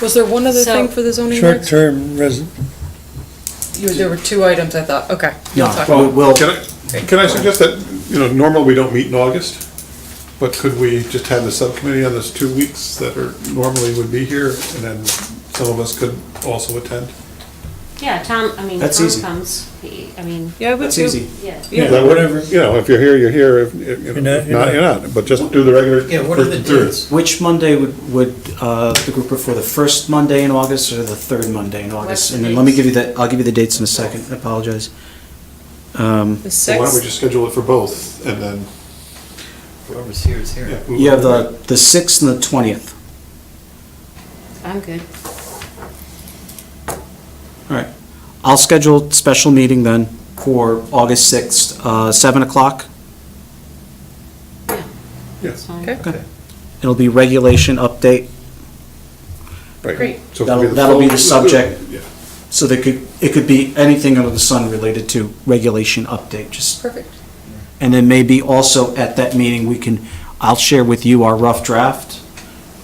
Was there one other thing So- for the zoning regs? Short-term resident, You- There were two items, I thought, okay. No. We'll talk. Well, Well, we'll- Can I, can I suggest that, you know, normally we don't meet in August, but could we just have the subcommittee on those two weeks that are, normally would be here, and then some of us could also attend? Yeah, Tom, I mean, That's Tom easy. comes, he, I mean, Yeah, but That's you- easy. yeah. Yeah. That would- You know, if you're here, you're here, if, if, you You're know, not, if you're not, not. you're not, but just do the regular. Yeah, what are the first and third. dates? Which Monday would, would uh, the group prefer, the first Monday in August or the third Monday in August? the And then let me dates? give you the, I'll give you the dates in a second, I apologize. Um, The So Why don't we sixth, just schedule it for both, and then, Whoever's here is here. yeah. we- You have the, the 6th and the 20th. I'm good. All right. I'll schedule a special meeting then for August 6th, uh, 7 o'clock. It's Yes, fine. okay, It'll be regulation update, right. Great. So if we That'll- do the that'll be full- the subject. Yeah. so there could, it could be anything under the sun related to regulation update, just, perfect. and then maybe also at that meeting, we can, I'll share with you our rough draft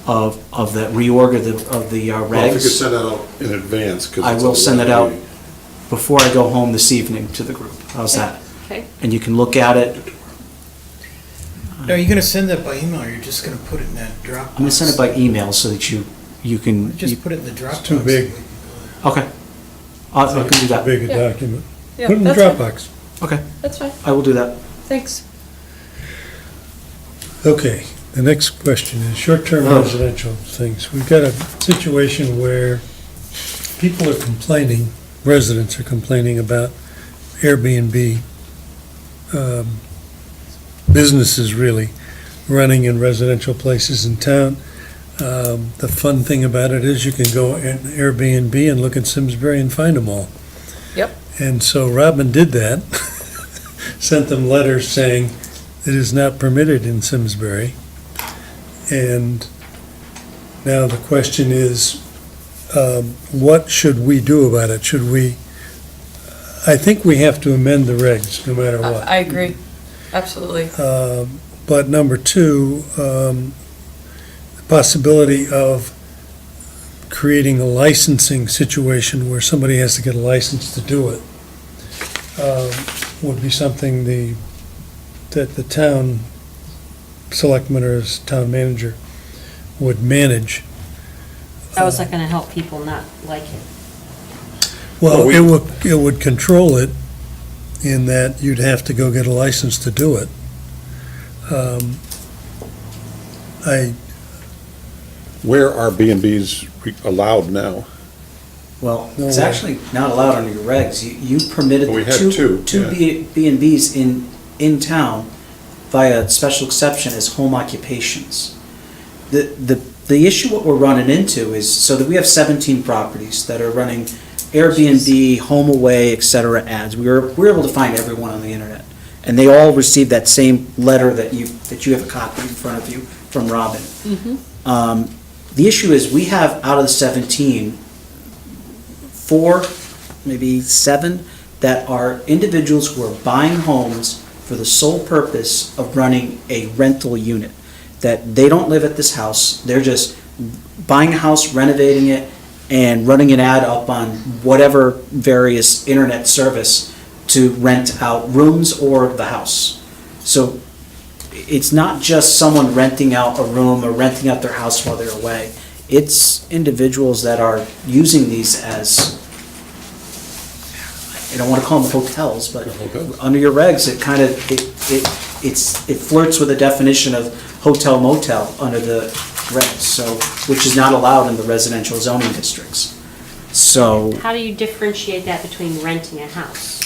of, of that reorg of the, of the uh, Well, if you could regs send that out in advance, 'cause I it's will a send it regular out. meeting. before I go home this evening to the group. How's that? Okay, And you can look at it. No, you're gonna send that by email, or you're just gonna put it in that Dropbox? I'm gonna send it by email so that you, you can, you- Just put it in the Dropbox. uh, too big. okay. I I can do that. big a document. Yeah, Put it in that's fine. Dropbox. Okay, That's fine, I will do that. thanks. Okay, the next question is short-term Oh. residential things. We've got a situation where people are complaining, residents are complaining about Airbnb, um, businesses really, running in residential places in town. Um, The fun thing about it is you can go in Airbnb and look at Simsbury and find them all. Yep. And so Robin did that, sent them letters saying, it is not permitted in Simsbury. And now the question is, um, what should we do about it? Should we, I think we have to amend the regs, no matter I what. I agree, absolutely. Um, But number two, um, the possibility of creating a licensing situation where somebody has to get a license to do it um, would be something the, that the town selectman or his town manager would manage. that was not gonna help people not like it. Well, Well, we- it would, it would control it in that you'd have to go get a license to do it. Um, I, Where are B and Bs re- allowed now? Well, No it's way. actually not allowed under your regs. You, you permitted Well, we had two, two, two yeah. B B and Bs in, in town via special exception as home occupations. The, the, the issue what we're running into is, so that we have seventeen properties that are running Airbnb, home away, et cetera ads. We were, we were able to find everyone on the internet. And they all received that same letter that you, that you have a copy in front of you from Robin. Um, The issue is, we have out of the 17, four, maybe seven, that are individuals who are buying homes for the sole purpose of running a rental unit. That they don't live at this house, they're just buying a house, renovating it, and running an ad up on whatever various internet service to rent out rooms or the house. So it's not just someone renting out a room or renting out their house while they're away. It's individuals that are using these as, I don't want to call them hotels, but hotels. under your regs, it kind of, it, it, it's, it flirts with the definition of hotel motel under the regs, so, which is not allowed in the residential zoning districts. So, How do you differentiate that between renting a house?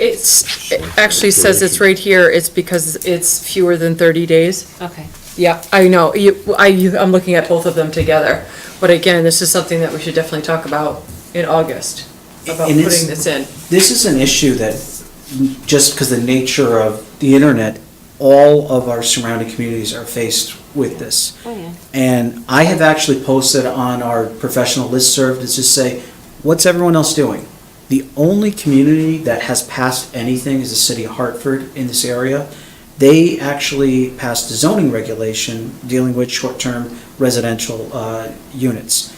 It's, it actually says it's right here, it's because it's fewer than 30 days. Okay, Yeah, I know, you, I, you- I'm looking at both of them together, but again, this is something that we should definitely talk about in August, about And putting it's- this in. this is an issue that, just because the nature of the internet, all of our surrounding communities are faced with this. oh yeah. And I have actually posted on our professional listserv to just say, what's everyone else doing? The only community that has passed anything is the city of Hartford in this area. They actually passed a zoning regulation dealing with short-term residential uh, units.